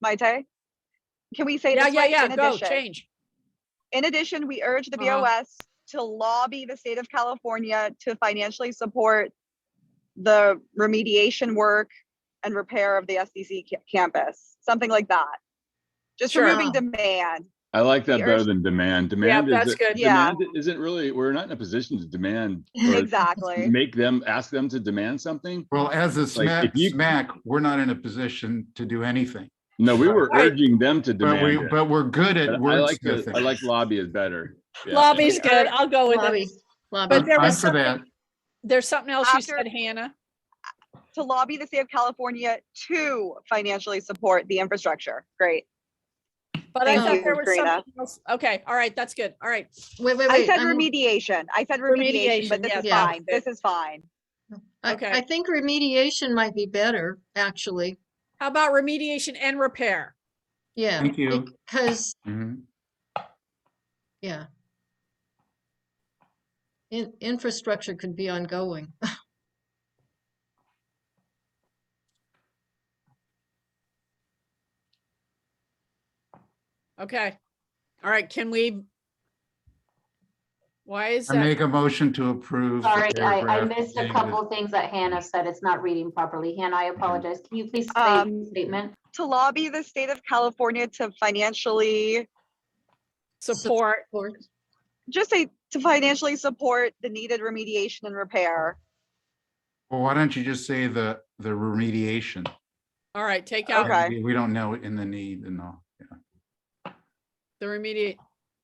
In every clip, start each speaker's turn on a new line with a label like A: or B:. A: Mai Tai? Can we say
B: Yeah,
A: this
B: yeah,
A: way?
B: yeah,
A: In
B: go,
A: addition-
B: change.
A: In addition, we urge the
B: Uh-huh.
A: BOS to lobby the state of California to financially support the remediation work and repair of the SDC ca- campus, something like that. Just
B: Sure.
A: removing demand.
C: I like
A: The
C: that better
A: urge-
C: than demand.
B: Yeah,
C: Demand
B: that's
C: is,
B: good.
A: Yeah.
C: demand isn't really, we're not in a position to demand. or
A: Exactly.
C: Make them, ask them to demand something.
D: Well, as a
C: Like,
D: smack,
C: if you-
D: smack, we're not in a position to do anything,
C: No, we were
B: Right.
C: urging them to
D: but we,
C: demand. it.
D: but we're good
C: But
D: at
C: I like, the- I
D: wordsmithing.
C: like lobby is better. Yeah.
B: Lobby's good. I'll go with it.
E: Lobby,
B: But
E: lobby.
B: there
D: I'm
B: was
D: for that.
B: something, there's something else you
A: After-
B: said, Hannah.
A: To lobby the state of California to financially support the infrastructure. Great.
B: But I
E: Thank
B: thought
E: you,
B: there was
A: Karina.
B: something else. Okay, all right, that's good. All right.
E: Wait, wait,
A: I
E: wait.
A: said
E: I'm-
A: remediation. I said remediation, but
B: Remediation,
A: this is
E: yeah.
A: fine. This is fine.
E: I,
B: okay.
E: I think remediation might be better, actually.
B: How about remediation and repair?
E: Yeah.
D: Thank you.
E: Because,
D: Mhm.
E: yeah. In, infrastructure could be ongoing.
B: Okay. All right, can we? Why is
D: I
B: that?
D: make a motion to approve. the
F: Sorry, I, I
D: paragraph
F: missed a
D: saying Mm-hmm.
F: couple things that Hannah said. It's not reading properly. Hannah, I apologize. Can you please say
A: Um,
F: the statement?
A: To lobby the state of California to financially,
B: Support.
E: Or-
A: just say to financially support the needed remediation and repair.
D: Well, why don't you just say the, the remediation?
B: All right, take
D: Uh,
B: out
A: Okay.
D: we- We don't know in the need and all.
B: the remediate.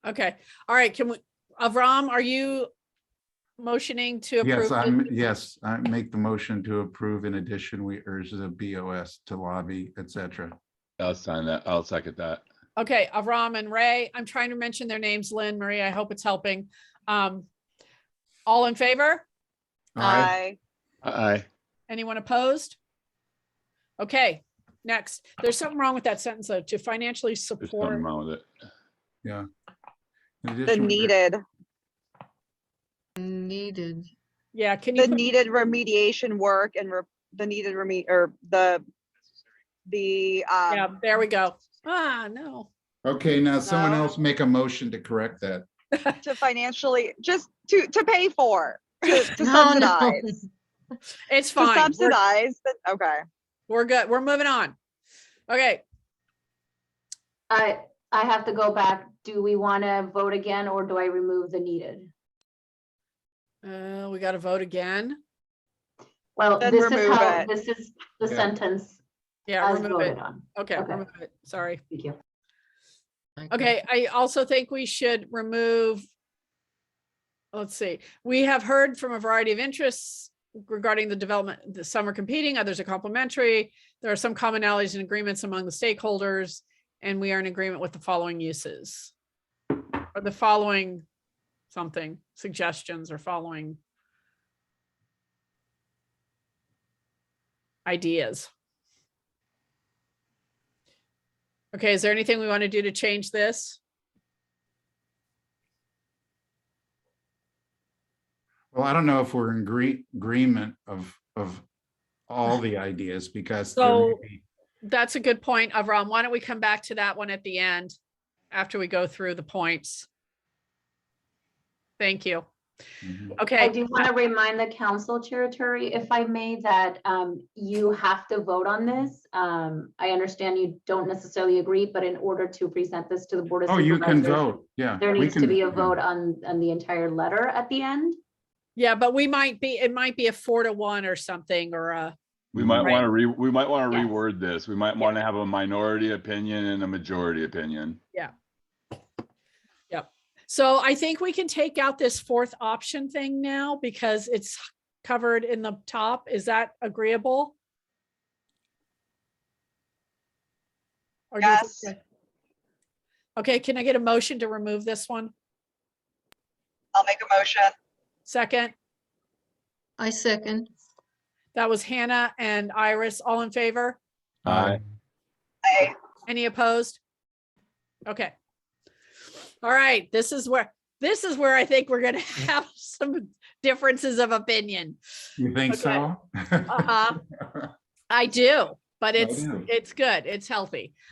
B: Okay, all right, can we, Avram, are you motioning to approve?
D: Yes, I'm,
B: this?
D: yes, I make the motion to approve. In addition, we urge the BOS to lobby, et cetera.
C: I'll sign that. I'll second that.
B: Okay, Avram and Ray, I'm trying to mention their names, Lynn, Marie, I hope it's helping. Um, all in favor?
D: All right.
A: I-
C: Aye.
B: Anyone opposed? Okay, next. There's something wrong with that sentence though, to financially
C: There's something
B: support.
C: wrong with it.
D: In
A: The
D: addition, we-
A: needed,
E: Needed.
B: Yeah, can you,
A: the
B: put-
A: needed remediation work and re- the needed reme, or the, the,
B: yeah,
A: um,
B: there we go. Ah, no.
D: Okay, now someone
A: No.
D: else make a motion to correct that.
A: to financially, just to, to pay for, to to
E: No, no.
A: subsidize.
B: It's
A: To
B: fine. We're,
A: subsidize, the- okay.
B: we're good. We're moving on. Okay,
F: I, I have to go back. Do we want to vote again or do I remove the needed?
B: uh, we got to vote again.
F: Well,
A: Then
F: this is
A: remove
F: how,
A: it.
F: this is the
D: Yeah.
F: sentence
B: Yeah,
F: as
B: remove it.
F: voted on.
B: Okay,
F: Okay.
B: remove it. Sorry.
F: Thank you.
B: Okay, I also think we should remove. Let's see, we have heard from a variety of interests regarding the development, the- some are competing, others are complementary. There are some commonalities and agreements among the stakeholders, and we are in agreement with the following uses. Or the following something, suggestions or following. Ideas. Okay, is there anything we want to do to change this?
D: Well, I don't know if we're in agree- agreement of, of all the ideas because there may
B: So-
D: be-
B: That's a good point, Avram. Why don't we come back to that one at the end after we go through the points? Thank you.
D: Mhm.
F: I
B: Okay,
F: do want to remind the council, Chair Turi, if I may, that um, you have to vote on this. Um, I understand you don't necessarily agree, but in order to present this to the Board of
D: Oh, you can
F: Supervisors,
D: vote, yeah.
F: There
D: we
F: needs to
D: can-
F: be a
D: yeah.
F: vote on, on the entire letter at the end.
B: yeah, but we might be, it might be a four to one or something or a,
C: We might
B: Right.
C: want to re, we might want to
F: Yes.
C: reword this. We might want to have a minority opinion and a majority opinion.
B: so I think we can take out this fourth option thing now because it's covered in the top. Is that agreeable? Or do you think
A: Yes.
B: that- Okay, can I get a motion to remove this one?
A: I'll make a motion.
B: Second?
E: I second.
B: That was Hannah and Iris. All in favor?
C: Aye.
A: I,
B: Any opposed? Okay. All right, this is where, this is where I think we're gonna have some differences of opinion.
D: You think
B: Okay.
D: so?
B: Uh-huh. I do, but
D: I
B: it's,
D: do.
B: it's good. It's healthy.